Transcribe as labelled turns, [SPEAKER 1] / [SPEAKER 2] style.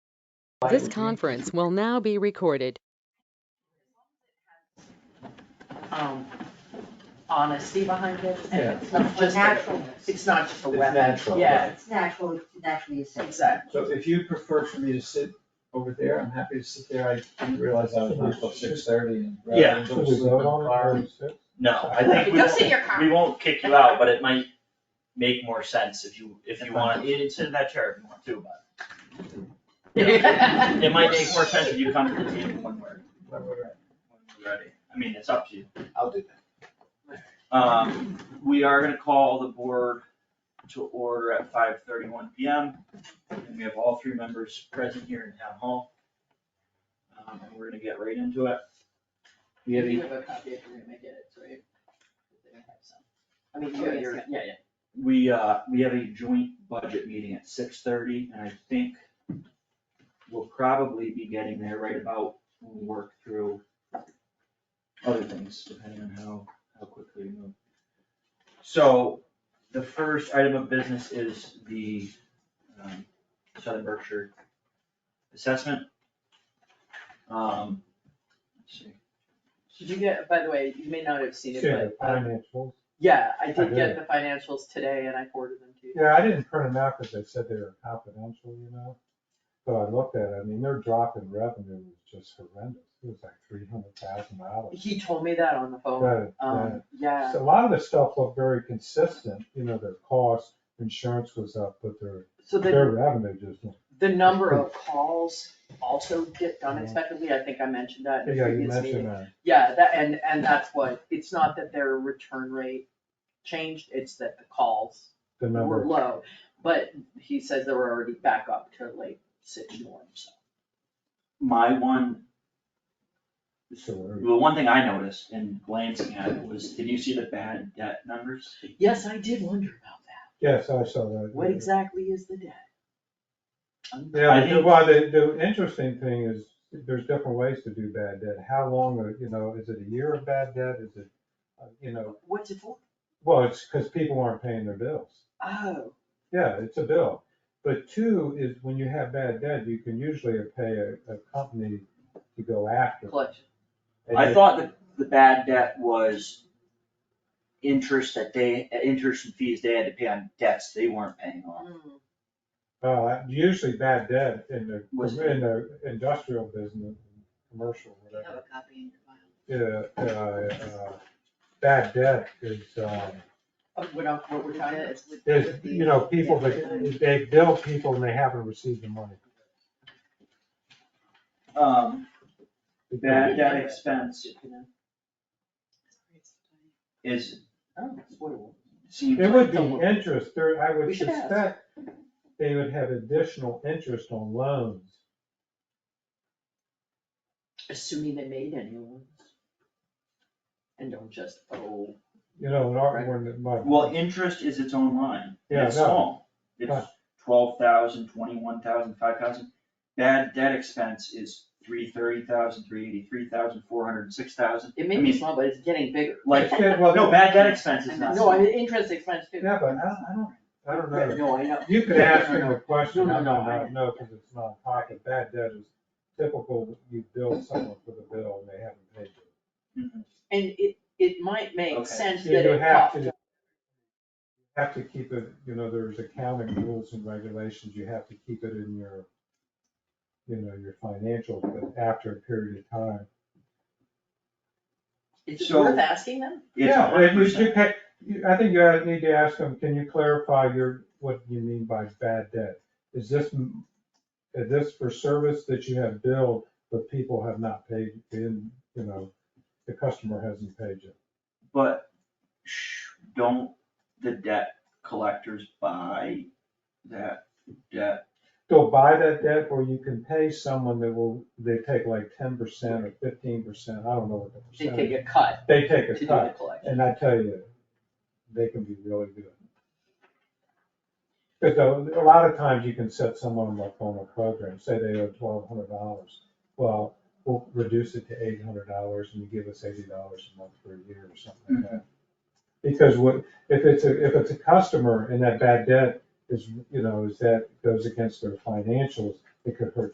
[SPEAKER 1] This conference will now be recorded.
[SPEAKER 2] um, honesty behind it.
[SPEAKER 3] Yeah.
[SPEAKER 2] It's not just, a-
[SPEAKER 4] Naturalness.
[SPEAKER 2] it's not just a
[SPEAKER 3] It's
[SPEAKER 2] weapon.
[SPEAKER 3] natural.
[SPEAKER 2] Yeah,
[SPEAKER 4] It's natural, naturally essential.
[SPEAKER 2] exactly.
[SPEAKER 3] So if you prefer for me to sit over there, I'm happy to sit there. I didn't realize I was not till six thirty.
[SPEAKER 5] Yeah.
[SPEAKER 3] Go sleep in the car.
[SPEAKER 5] No, I think we
[SPEAKER 2] Go sit
[SPEAKER 5] won't,
[SPEAKER 2] your car.
[SPEAKER 5] we won't kick you out, but it might make more sense if you, if you want, it- it's in that chair if you want to, but. It might make more sense if you come to the table when we're,
[SPEAKER 3] Where we're at.
[SPEAKER 5] when we're ready. I mean, it's up to you.
[SPEAKER 3] I'll do that.
[SPEAKER 5] Um, we are gonna call the board to order at five thirty-one P M. And we have all three members present here in town hall. Um, and we're gonna get right into it. We have
[SPEAKER 2] You
[SPEAKER 5] a,
[SPEAKER 2] have a copy if you're gonna get it, so you- they have some. I mean, you have your, yeah, yeah.
[SPEAKER 5] we, uh, we have a joint budget meeting at six thirty, and I think we'll probably be getting there right about, when we work through other things, depending on how, how quickly we move. So, the first item of business is the, um, Southern Berkshire assessment. Um, let's see.
[SPEAKER 2] Did you get, by the way, you may not have seen it,
[SPEAKER 6] Yeah,
[SPEAKER 2] but, um,
[SPEAKER 6] financials.
[SPEAKER 2] yeah, I
[SPEAKER 6] I
[SPEAKER 2] did
[SPEAKER 6] did.
[SPEAKER 2] get the financials today and I forwarded them to you.
[SPEAKER 6] Yeah, I didn't print them out because they said they were confidential, you know? So I looked at it, I mean, their drop in revenue was just horrendous. It was like three hundred thousand dollars.
[SPEAKER 2] He told me that on the phone,
[SPEAKER 6] Right, right.
[SPEAKER 2] um, yeah,
[SPEAKER 6] So a lot of the stuff looked very consistent, you know, their cost, insurance was up, but their,
[SPEAKER 2] so the
[SPEAKER 6] their revenue just, went-
[SPEAKER 2] The number of calls also dipped unexpectedly, I think I mentioned that in a
[SPEAKER 6] yeah, you
[SPEAKER 2] previous meeting.
[SPEAKER 6] mentioned that.
[SPEAKER 2] Yeah, that, and, and that's what, it's not that their return rate changed, it's that the calls
[SPEAKER 6] The
[SPEAKER 2] were
[SPEAKER 6] number,
[SPEAKER 2] low. But he says they were already back up to like six norms.
[SPEAKER 5] My one,
[SPEAKER 6] so whatever.
[SPEAKER 5] the one thing I noticed in glancing at it was, did you see the bad debt numbers?
[SPEAKER 2] Yes, I did wonder about that.
[SPEAKER 6] yes, I saw that.
[SPEAKER 2] What exactly is the debt? Um,
[SPEAKER 6] Yeah, but
[SPEAKER 5] I
[SPEAKER 6] the-
[SPEAKER 5] think-
[SPEAKER 6] well, the, the interesting thing is, there's different ways to do bad debt. How long, are- you know, is it a year of bad debt? Is it, uh, you know,
[SPEAKER 2] What's it for?
[SPEAKER 6] Well, it's because people aren't paying their bills.
[SPEAKER 2] Oh,
[SPEAKER 6] Yeah, it's a bill. But two is when you have bad debt, you can usually pay a, a company to go after.
[SPEAKER 2] collection.
[SPEAKER 6] And
[SPEAKER 5] I
[SPEAKER 6] it-
[SPEAKER 5] thought that the bad debt was interest that they, interest and fees they had to pay on debts they weren't paying off.
[SPEAKER 2] Mm,
[SPEAKER 6] Uh, usually bad debt in the,
[SPEAKER 5] Was-
[SPEAKER 6] in the industrial business, commercial,
[SPEAKER 4] You have
[SPEAKER 6] whatever.
[SPEAKER 4] a copy in your file.
[SPEAKER 6] Yeah, uh, uh, bad debt is, um,
[SPEAKER 2] oh, What, I'm- what we're trying to,
[SPEAKER 4] It's with-
[SPEAKER 6] is,
[SPEAKER 4] with the-
[SPEAKER 6] you know, people that, they bill people and they haven't received the money.
[SPEAKER 5] Um, bad debt expense is,
[SPEAKER 2] oh, spoil.
[SPEAKER 5] seems
[SPEAKER 6] There would
[SPEAKER 5] like,
[SPEAKER 6] be interest, there, I
[SPEAKER 2] We
[SPEAKER 6] would
[SPEAKER 2] should ask.
[SPEAKER 6] suspect they would have additional interest on loans.
[SPEAKER 2] Assuming they made any loans. And don't just, oh,
[SPEAKER 6] You know, an art one that might.
[SPEAKER 5] well, interest is its own line.
[SPEAKER 6] Yeah,
[SPEAKER 5] It's
[SPEAKER 6] no.
[SPEAKER 5] small. It's
[SPEAKER 6] Right.
[SPEAKER 5] twelve thousand, twenty-one thousand, five thousand. Bad debt expense is three thirty thousand, three eighty-three thousand, four hundred and six thousand.
[SPEAKER 2] it may
[SPEAKER 5] I
[SPEAKER 2] be
[SPEAKER 5] mean-
[SPEAKER 2] small, but it's getting bigger.
[SPEAKER 5] Like,
[SPEAKER 6] It's good, well,
[SPEAKER 5] no, bad debt expense is not.
[SPEAKER 2] No, I mean, interest expense too.
[SPEAKER 6] Yeah, but I, I don't, I don't
[SPEAKER 2] Right,
[SPEAKER 6] know.
[SPEAKER 2] No, I know.
[SPEAKER 6] You could ask him a question,
[SPEAKER 2] No,
[SPEAKER 6] I
[SPEAKER 2] no,
[SPEAKER 6] don't
[SPEAKER 2] no, I-
[SPEAKER 6] know, no, because it's not pocket, bad debt is typical, you bill someone for the bill and they haven't paid it.
[SPEAKER 5] Mhm.
[SPEAKER 2] And it, it might make
[SPEAKER 5] Okay.
[SPEAKER 2] sense
[SPEAKER 6] You
[SPEAKER 2] that
[SPEAKER 6] you
[SPEAKER 2] it
[SPEAKER 6] have
[SPEAKER 2] popped.
[SPEAKER 6] to, have to keep it, you know, there's accounting rules and regulations, you have to keep it in your, you know, your financials, but after a period of time,
[SPEAKER 2] Is it
[SPEAKER 5] So-
[SPEAKER 2] worth asking them?
[SPEAKER 5] It's
[SPEAKER 6] Yeah, but you
[SPEAKER 5] 100%.
[SPEAKER 6] should pick, you- I think you have- need to ask them, can you clarify your, what you mean by bad debt? Is this, m- is this for service that you have billed, but people have not paid in, you know, the customer hasn't paid you?
[SPEAKER 5] But sh don't the debt collectors buy that debt?
[SPEAKER 6] Go buy that debt or you can pay someone that will, they take like ten percent or fifteen percent, I don't know what the
[SPEAKER 2] They take
[SPEAKER 6] percentage.
[SPEAKER 2] a cut
[SPEAKER 6] They take
[SPEAKER 2] to do
[SPEAKER 6] a
[SPEAKER 2] the
[SPEAKER 6] cut,
[SPEAKER 2] collection.
[SPEAKER 6] and I tell you, they can be really good. Because a lot of times you can set someone up on a program, say they owe twelve hundred dollars. Well, we'll reduce it to eight hundred dollars and you give us eighty dollars a month for a year or something like that. Because what, if it's a, if it's a customer and that bad debt is, you know, is that goes against their financials, it could hurt